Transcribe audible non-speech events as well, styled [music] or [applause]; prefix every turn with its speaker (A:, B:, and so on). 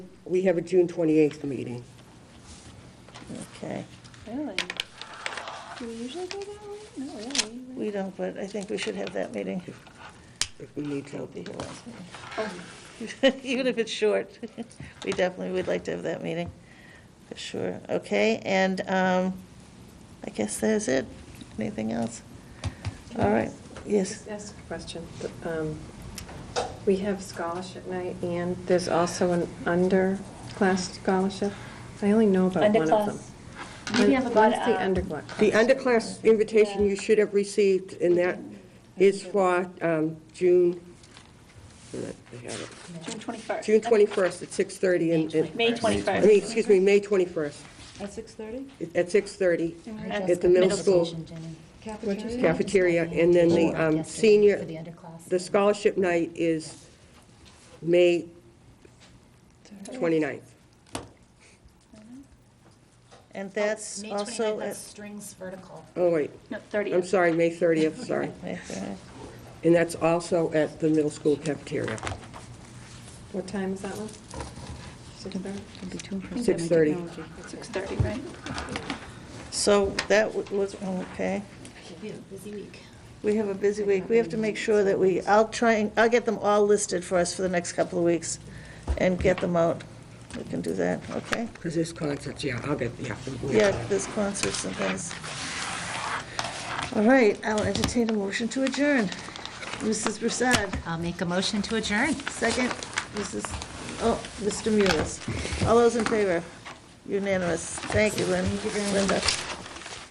A: we have a June 28th meeting.
B: Okay,
C: Really? Do we usually go that way? Not really.
B: we don't, but I think we should have that meeting.
A: If we need
B: It'll
A: to.
B: be here last meeting.
C: Oh,
B: [laughs] Even if it's short, we definitely would like to have that meeting, for sure. Okay, and um, I guess that's it. Anything else?
D: Can I
B: All right,
D: ask-
B: yes.
D: Just ask a question. Um, We have scholarship night, and there's also an underclass scholarship. I only know about one of them.
C: Underclass. Maybe I've got,
D: What's the
C: uh,
D: underclass?
A: The underclass invitation you should have received, and that is for um, June, I have it.
C: June 21st.
A: June 21st at 6:30 in- in...
C: May 21st.
A: I mean, excuse me, May 21st
E: At six thirty?
A: at 6:30
C: At
A: at the middle school cafeteria. And then the um, senior, the scholarship night is May 29th.
B: And that's also, at-
E: Strings vertical.
A: Oh, wait,
C: No, 30th.
A: I'm sorry, May 30th, sorry. And that's also at the middle school cafeteria.
D: What time is that one? Six thirty?
A: Six thirty.
C: 6:30, right?
B: so that w- was, okay.
E: We have a busy week.
B: We have a busy week. We have to make sure that we, I'll try, and I'll get them all listed for us for the next couple of weeks and get them out. We can do that, okay?
A: Because there's concerts, yeah, I'll get, yeah.
B: Yeah, there's concerts and things. All right, I'll entertain a motion to adjourn. Mrs. Broussard,
E: I'll make a motion to adjourn.
B: second. Mrs., oh, Mr. Mullis. All those in favor? Unanimous. Thank you, Lynn. Linda.